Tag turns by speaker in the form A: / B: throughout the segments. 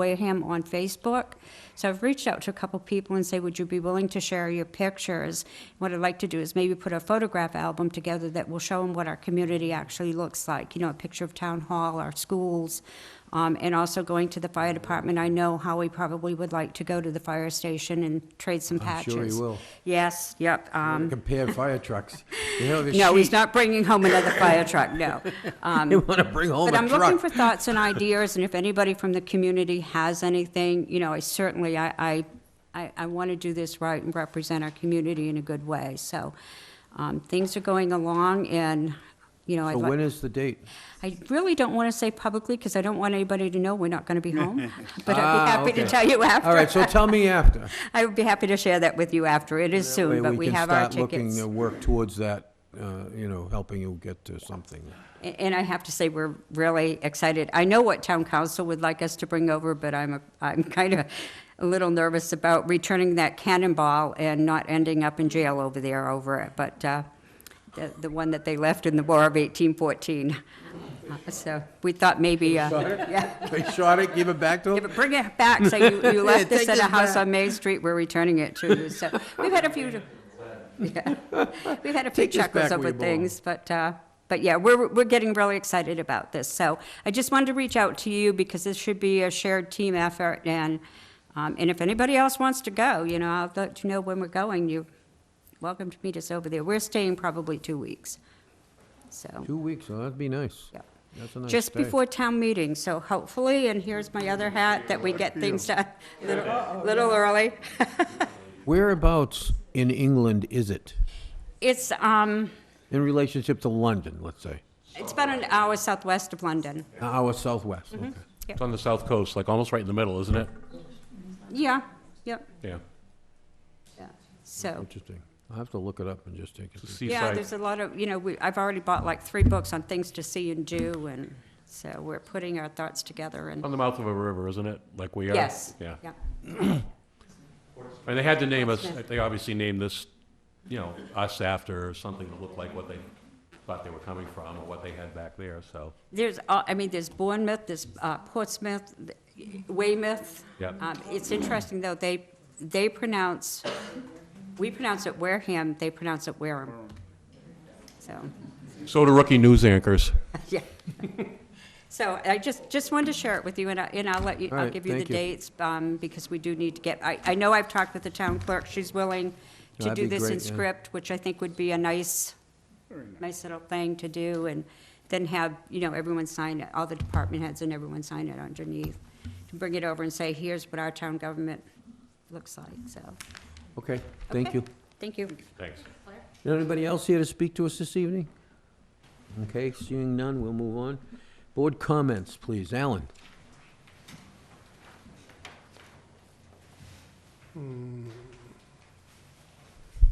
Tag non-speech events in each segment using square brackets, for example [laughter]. A: Wareham on Facebook. So I've reached out to a couple people and say, would you be willing to share your pictures? What I'd like to do is maybe put a photograph album together that will show them what our community actually looks like. You know, a picture of town hall, our schools, um, and also going to the fire department. I know Howie probably would like to go to the fire station and trade some
B: I'm
A: patches.
B: sure he will.
A: Yes, yep. Um,
B: Compare fire trucks. You know, the
A: [laughs] no, he's
B: sheet,
A: not bringing home another fire truck,
B: [laughs]
A: no.
B: they want to bring home
A: But
B: a
A: I'm looking
B: truck.
A: for thoughts and ideas, and if anybody from the community has anything, you know, I certainly, I, I, I, I want to do this right and represent our community in a good way, so, um, things are going along, and, you know, I'd
B: So
A: like-
B: when is the date?
A: I really don't want to say publicly, because I don't want anybody to know we're not going to be
B: [laughs]
A: home, [laughs] but I'd
B: Ah,
A: be happy to
B: okay.
A: tell you
B: All right,
A: after.
B: so tell me after.
A: I would be happy to share that with you after, it is
B: That
A: [laughs]
B: way
A: soon, but we
B: can
A: have our
B: start Looking
A: tickets.
B: to work towards that, uh, you know, helping you get to something. [laughs]
A: A- And I have to say, we're really excited. I know what town council would like us to bring over, but I'm, a- I'm [laughs] kind of a little nervous about returning that cannonball and not ending up in jail over there over it, but uh, the, the one that they left in the War of 1814. Uh, [laughs] So we thought maybe, uh, yeah,
B: They shot it, give it back to
A: yeah,
B: them?
A: but bring it back, so
B: [laughs]
A: you, you left this
B: take
A: at a
B: this
A: house
B: back.
A: on Main Street, we're returning it to you,
B: [laughs]
A: so, we've had a few, yeah, we've had a few
B: Take this
A: chuckles
B: back where
A: over
B: you belong.
A: things, but, uh, but yeah, we're, we're getting really excited about this, so I just wanted to reach out to you, because this should be a shared team effort, and, um, and if anybody else wants to go, you know, I'll let you know when we're going, you, welcome to meet us over there, we're staying probably two weeks, so.
B: Two weeks, huh? that'd be nice.
A: Yep.
B: That's a nice
A: Just
B: day.
A: before town meeting, so hopefully, and here's my other hat, that we get things done a little, little early.
B: Whereabouts in England is it?
A: It's, um,
B: In relationship to London, let's say?
A: it's about an hour southwest of London.
B: An hour southwest,
A: Mm-hmm.
B: okay.
C: It's on the south coast, like almost right in the middle, isn't it?
A: Yeah, yep,
C: Yeah.
A: yeah. so,
B: Interesting. I'll have to look it up and just take it.
A: yeah,
C: Seaside.
A: there's a lot of, you know, we, I've already bought like three books on things to see and do, and so we're putting our thoughts together and,
C: On the mouth of a river, isn't it? Like we are.
A: yes.
C: Oh, Yeah. And they had to name us, they obviously named this, you know, us after something that looked like what they thought they were coming from or what they had back there, so.
A: There's, uh, I mean, there's Bournemouth, there's uh, Portsmouth, th- Weymouth.
C: Yep.
A: Um, It's interesting, though, they, they pronounce, we pronounce it Wareham, they pronounce it Wareham. So,
C: So do rookie news anchors.
A: yeah. [laughs] So I just, just wanted to share it with you, and I, and I'll let you,
B: All
A: I'll
B: right,
A: give you the
B: thank you.
A: dates, um, because we do need to get, I, I know I've talked with the town clerk, she's willing to
B: That'd
A: do
B: be
A: this in
B: great, yeah.
A: script, which I think would be a nice, nice little thing to do, and then have, you know, everyone sign it, all the department heads and everyone sign it underneath, to bring it over and say, here's what our town government looks like, so.
B: Okay, thank
A: okay,
B: you.
A: Thank you.
C: Thanks.
B: Is there Anybody else here to speak to us this evening? Okay, seeing none, we'll move on. Board comments, please. Alan?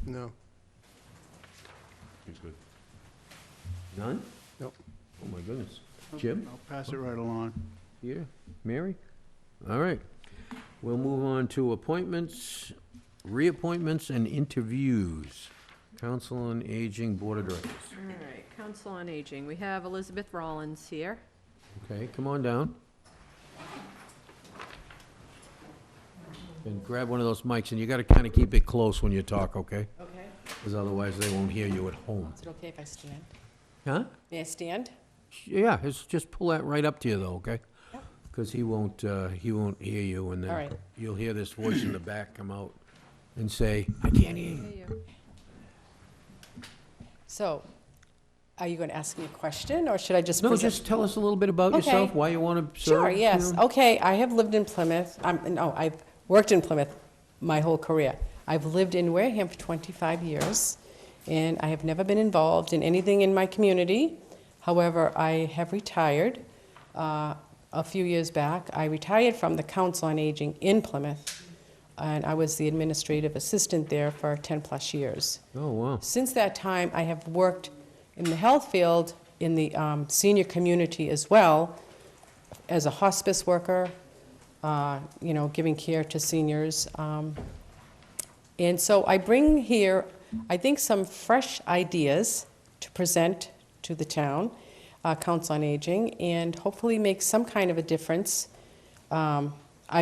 D: No,
C: He's good.
B: None?
D: Nope.
B: Oh, my goodness. Jim?
D: I'll pass it right along.
B: Here? Mary? All right. We'll move on to appointments, reappointments, and interviews. Council on Aging Board of Directors.
E: All right, Council on Aging, we have Elizabeth Rollins here.
B: Okay, come on down. And grab one of those mics, and you gotta kinda keep it close when you talk, okay?
F: Okay,
B: Because otherwise, they won't hear you at home.
F: is it okay if I stand?
B: Huh?
F: May I stand?
B: Yeah, just, just pull that right up to you though, okay? Because he won't, uh, he won't hear you and
F: All
B: then
F: right.
B: you'll hear this voice in the back come out and say, I can't hear you.
E: There you are.
F: So, are you going to ask me a question, or should I just?
B: No,
F: present-
B: just tell us a little bit about
F: Okay.
B: yourself, why you want to serve.
F: Sure,
B: you
F: yes, Oh.
B: know?
F: okay, I have lived in Plymouth, um, no, I've worked in Plymouth my whole career. I've lived in Wareham for 25 years, and I have never been involved in anything in my community. However, I have retired. Uh, A few years back, I retired from the Council on Aging in Plymouth, and I was the administrative assistant there for 10-plus years.
B: Oh, wow.
F: Since that time, I have worked in the health field, in the um, senior community as well, as a hospice worker, uh, you know, giving care to seniors. um, And so I bring here, I think, some fresh ideas to present to the town, uh, Council on Aging, and hopefully make some kind of a difference um,